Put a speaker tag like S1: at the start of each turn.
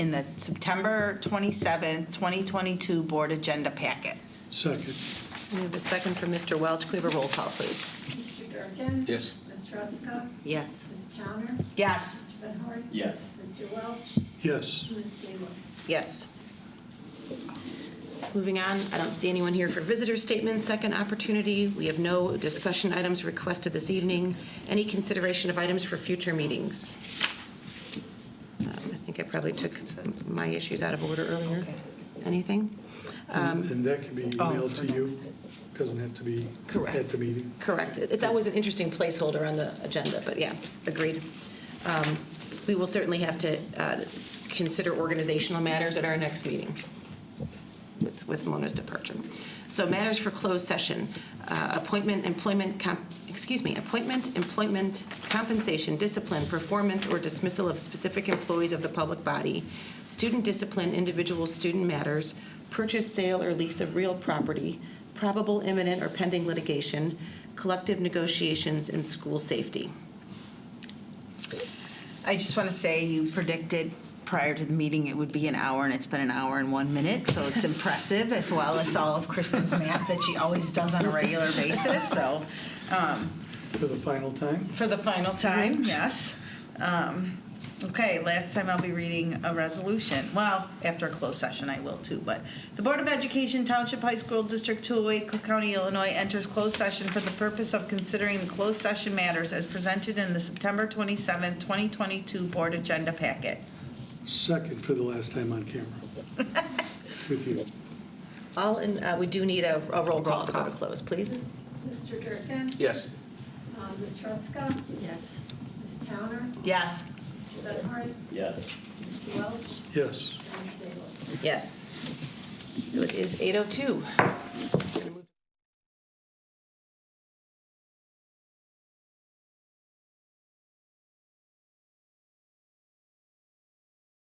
S1: in the September 27th, 2022 board agenda packet.
S2: Second.
S3: We have a second from Mr. Welch. Can we have a roll call, please?
S4: Mr. Durkin?
S2: Yes.
S4: Ms. Ruska?
S3: Yes.
S4: Ms. Towner?
S1: Yes,
S4: Mr. Benhorst?
S5: Yes.
S4: Mr. Welch?
S2: Yes.
S4: Ms. Seawood?
S3: Yes. Moving on, I don't see anyone here for visitor statements, second opportunity. We have no discussion items requested this evening. Any consideration of items for future meetings? Um, I think I probably took my issues out of order earlier. Anything? Uh,
S2: And and that can be emailed to you. Doesn't have to be
S3: Correct.
S2: at the meeting.
S3: Correct. It- It's always an interesting placeholder on the agenda, but yeah, agreed. Um, We will certainly have to uh, consider organizational matters at our next meeting with with Mona's departure. So matters for closed session, uh, appointment, employment, comp- excuse me, appointment, employment, compensation, discipline, performance, or dismissal of specific employees of the public body, student discipline, individual student matters, purchase, sale, or lease of real property, probable imminent or pending litigation, collective negotiations, and school safety.
S1: I just want to say you predicted prior to the meeting it would be an hour, and it's been an hour and one minute, so it's impressive, as well as all of Kristen's math that she always does on a regular basis, so, um,
S2: For the final time?
S1: for the final time, yes. Um, Okay, last time I'll be reading a resolution. Well, after a closed session, I will too, but the Board of Education Township High School District 208, Cook County, Illinois enters closed session for the purpose of considering the closed session matters as presented in the September 27, 2022 Board Agenda Packet.
S2: Second for the last time on camera. With you.
S3: All in, uh, we do need a a roll call to go to close, please.
S4: Mr. Durkin?
S5: Yes.
S4: Uh, Ms. Ruska?
S3: Yes.
S4: Ms. Towner?
S1: Yes.
S4: Mr. Benhorst?
S5: Yes.
S4: Mr. Welch?
S2: Yes.
S4: And Ms. Seawood?
S3: oh Yes. So it is 8:02.